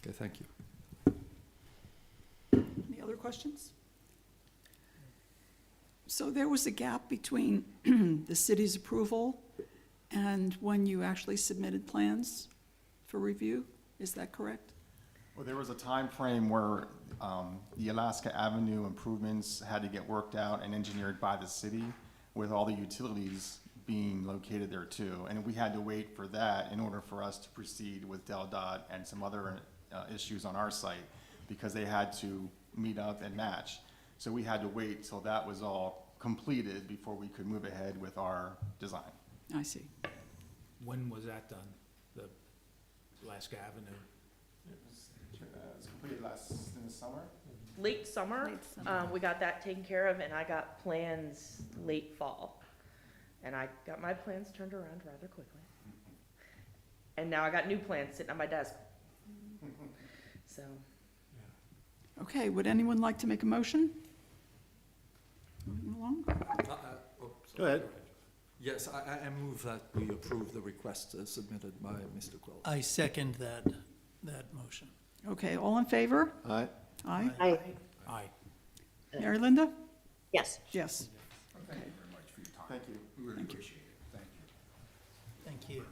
Okay, thank you. Any other questions? So there was a gap between the city's approval and when you actually submitted plans for review, is that correct? Well, there was a time frame where um, the Alaska Avenue improvements had to get worked out and engineered by the city, with all the utilities being located there too. And we had to wait for that in order for us to proceed with Del Dot and some other uh, issues on our site, because they had to meet up and match. So we had to wait till that was all completed before we could move ahead with our design. I see. When was that done? The Alaska Avenue? It was uh, completed last, in the summer? late summer, Late summer. um, we got that taken care of, and I got plans late fall. And I got my plans turned around rather quickly. And now I got new plans sitting on my desk. So, Okay, would anyone like to make a motion? Moving along. Uh, uh, oh, sorry, Go ahead. Yes, I, I- I move that we approve the request as submitted by Mr. Quill. I second that, that motion. Okay, all in favor? Aye. Aye. Aye. Aye. Mary Linda? Yes. Yes. Thank you. Thank you.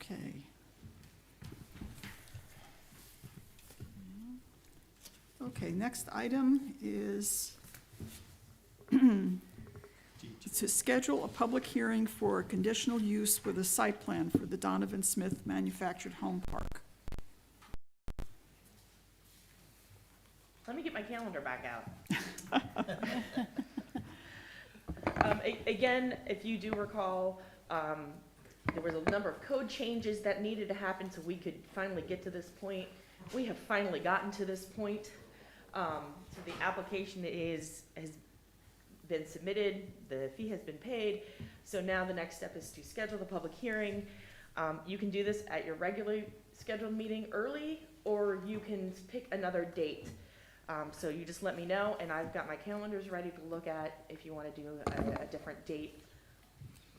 Okay. Okay, next item is to schedule a public hearing for a conditional use with a site plan for the Donovan Smith Manufactured Home Park. let me get my calendar back out. Um, a- again, if you do recall, um, there was a number of code changes that needed to happen so we could finally get to this point. We have finally gotten to this point. Um, so the application is, has been submitted, the fee has been paid. So now the next step is to schedule the public hearing. Um, you can do this at your regularly scheduled meeting early, or you can pick another date. Um, so you just let me know, and I've got my calendars ready to look at if you wanna do a, a different date.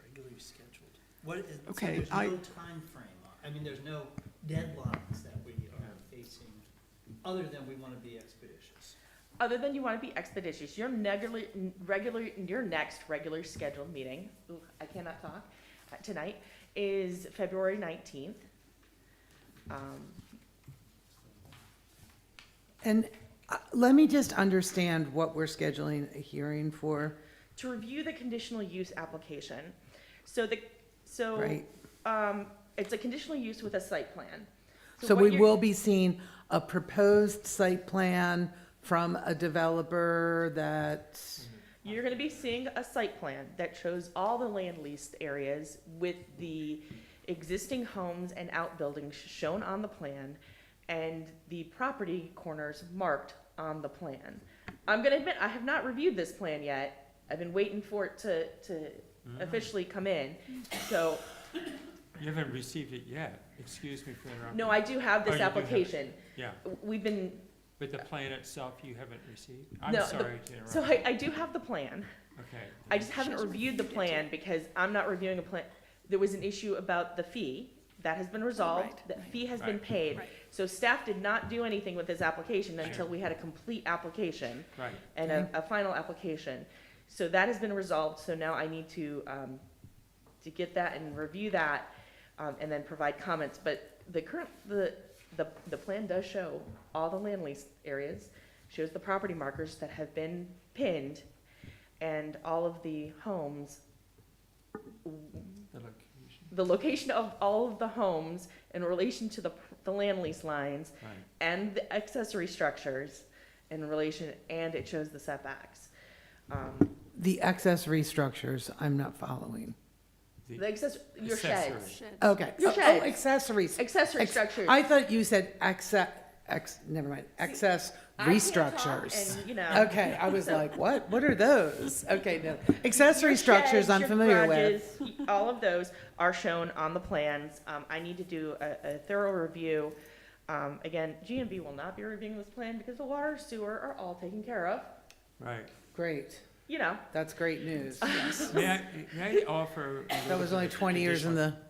Regularly scheduled. What is, so Okay, there's no I- timeframe, on- I mean, there's no deadlines that we are facing, other than we want to be expeditious. Other than you wanna be expeditious, your regular, regular, your next regular scheduled meeting, ooh, I cannot talk, uh, tonight, is February nineteenth. Um, And uh, let me just understand what we're scheduling a hearing for, to review the conditional use application. So the, so, right? um, it's a conditional use with a site plan. So what we you're- will be seeing a proposed site plan from a developer that, You're gonna be seeing a site plan that shows all the land leased areas with the existing homes and outbuildings shown on the plan and the property corners marked on the plan. I'm gonna admit, I have not reviewed this plan yet. I've been waiting for it to, to Mm-hmm. officially come in. So, You haven't received it yet, excuse me for interrupting. no, I do have Oh, this you do have it. application. Yeah, We've been but the plan itself you haven't received? I'm No, the- sorry to interrupt. So I, I do have the plan. Okay. I just haven't reviewed the plan because I'm not reviewing a plan. There was an issue about the fee. That has been resolved. right, That right. fee has been Right. paid. Right. So staff did not do anything with this application until Sure. we had a complete application Right, and a, a final application. So that has been resolved, so now I need to, um, to get that and review that, um, and then provide comments. But the current, the, the, the plan does show all the land lease areas, shows the property markers that have been pinned, and all of the homes, the location, the location of all of the homes in relation to the, the land lease lines, right. and the accessory structures in relation, and it shows the setbacks. Um, the accessory structures, I'm not following. The The access, your sheds, accessory. Okay. Your Oh, sheds. Oh, accessories. accessory Ex- structures. I thought you said access, ex, never mind, access I can't talk restructures. And, you know. Okay, I was like, what, what are those? Okay, no, accessory your structures sheds, I'm your familiar with. garages, All of those are shown on the plans. Um, I need to do a, a thorough review. Um, again, GMB will not be reviewing this plan because the water, sewer are all taken care of, Right. Great, you know. that's great news. May I, may I offer? a That little was bit only of 20 years in additional the